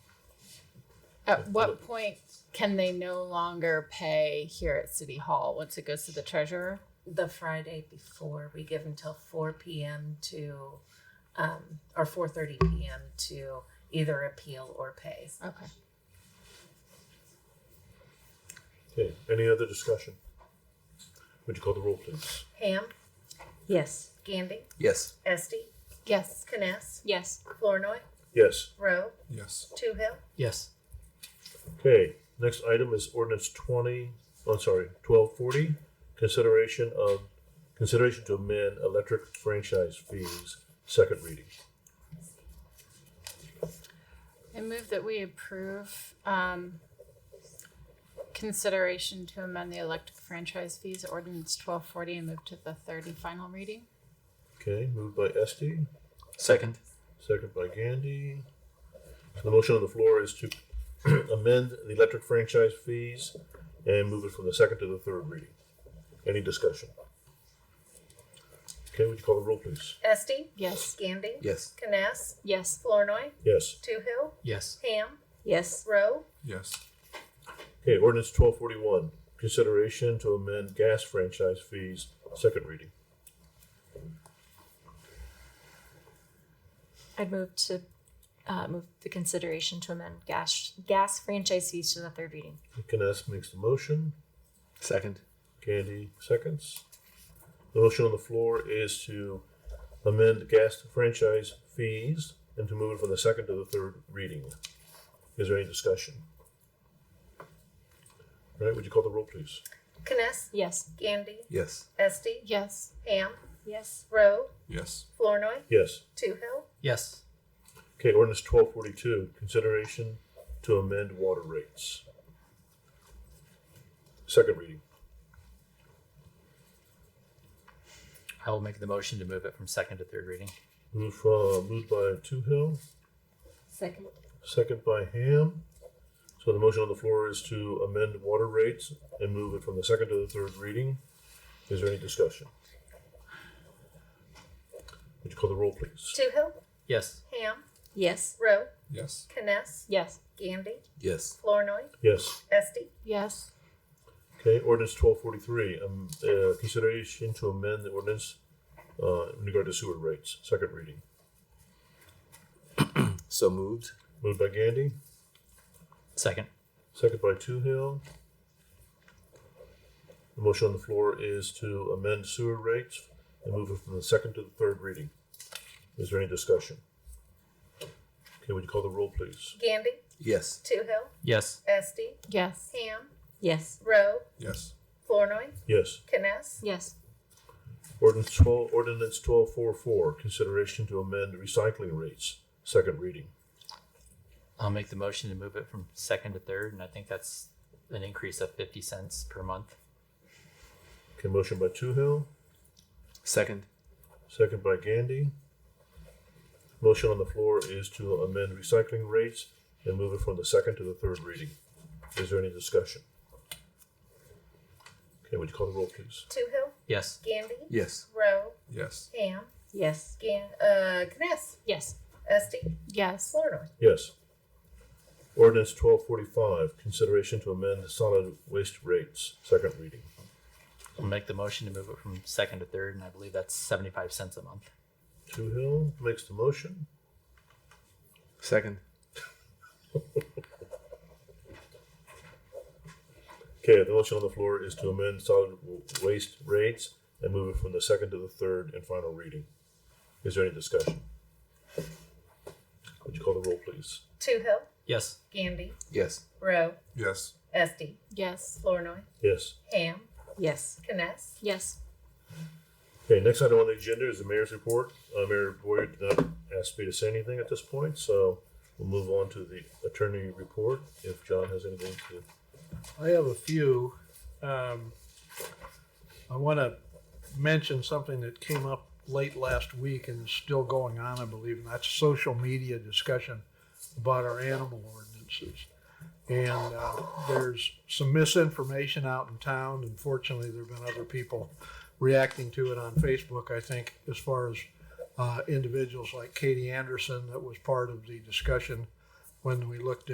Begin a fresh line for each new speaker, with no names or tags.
At what point can they no longer pay here at City Hall once it goes to the treasurer?
the Friday before. We give until four PM to, um, or four thirty PM to either appeal or pay.
Okay.
Okay, any other discussion? Would you call the roll, please?
Ham,
Yes.
Gandy,
Yes.
Esti,
Yes.
Kness,
Yes.
Flournoy,
Yes.
Rowe,
Yes.
Two Hill.
Yes.
Okay, next item is ordinance twenty, oh, sorry, twelve forty. Consideration of, consideration to amend electric franchise fees, second reading.
I move that we approve um, consideration to amend the electric franchise fees ordinance twelve forty and move to the third and final reading.
Okay, moved by Esti,
Second.
second by Gandy. So the motion on the floor is to amend the electric franchise fees and move it from the second to the third reading. Any discussion? Okay, would you call the roll, please?
Esti,
Yes.
Gandy,
Yes.
Kness,
Yes.
Flournoy,
Yes.
Two Hill,
Yes.
Ham,
Yes.
Rowe,
Yes.
Okay, ordinance twelve forty-one, consideration to amend gas franchise fees, second reading.
I'd move to uh, move the consideration to amend gas gas franchise fees to the third reading.
Kness makes the motion,
Second.
Candy seconds. The motion on the floor is to amend gas franchise fees and to move it from the second to the third reading. Is there any discussion? All right, would you call the roll, please?
Kness,
Yes.
Gandy,
Yes.
Esti,
Yes.
Ham,
Yes.
Rowe,
Yes.
Flournoy,
Yes.
Two Hill.
Yes.
Okay, ordinance twelve forty-two, consideration to amend water rates. Second reading.
I will make the motion to move it from second to third reading.
Move, uh, moved by Two Hill,
Second.
second by Ham. So the motion on the floor is to amend water rates and move it from the second to the third reading. Is there any discussion? Would you call the roll, please?
Two Hill,
Yes.
Ham,
Yes.
Rowe,
Yes.
Kness,
Yes.
Gandy,
Yes.
Flournoy,
Yes.
Esti,
Yes.
Okay, ordinance twelve forty-three, um, uh, consideration to amend the ordinance, uh, in regard to sewer rates, second reading.
So moved.
Moved by Gandy,
Second.
Second by Two Hill. The motion on the floor is to amend sewer rates and move it from the second to the third reading. Is there any discussion? Okay, would you call the roll, please?
Gandy,
Yes.
Two Hill,
Yes.
Esti,
Yes.
Ham,
Yes.
Rowe,
Yes.
Flournoy,
Yes.
Kness,
Yes.
Ordinance twelve, ordinance twelve four four, consideration to amend recycling rates, second reading.
I'll make the motion to move it from second to third, and I think that's an increase of fifty cents per month.
Okay, motion by Two Hill,
Second.
second by Gandy. Motion on the floor is to amend recycling rates and move it from the second to the third reading. Is there any discussion? Okay, would you call the roll, please?
Two Hill,
Yes.
Gandy,
Yes.
Rowe,
Yes.
Ham,
Yes.
Gan, uh, Kness,
Yes.
Esti,
Yes.
Flournoy,
Yes. Ordinance twelve forty-five, consideration to amend solid waste rates, second reading.
I'll make the motion to move it from second to third, and I believe that's seventy-five cents a month.
Two Hill makes the motion.
Second.
Okay, the motion on the floor is to amend solid w- waste rates and move it from the second to the third and final reading. Is there any discussion? Would you call the roll, please?
Two Hill,
Yes.
Gandy,
Yes.
Rowe,
Yes.
Esti,
Yes.
Flournoy,
Yes.
Ham,
Yes.
Kness,
Yes.
Okay, next item on the agenda is the mayor's report. Uh, Mayor Boyer did not ask me to say anything at this point, so we'll move on to the attorney report if John has anything to.
I have a few. Um, I want to mention something that came up late last week and is still going on, I believe, and that's social media discussion about our animal ordinances. And uh, there's some misinformation out in town. Unfortunately, there have been other people reacting to it on Facebook, I think, as far as uh, individuals like Katie Anderson that was part of the discussion when we looked at.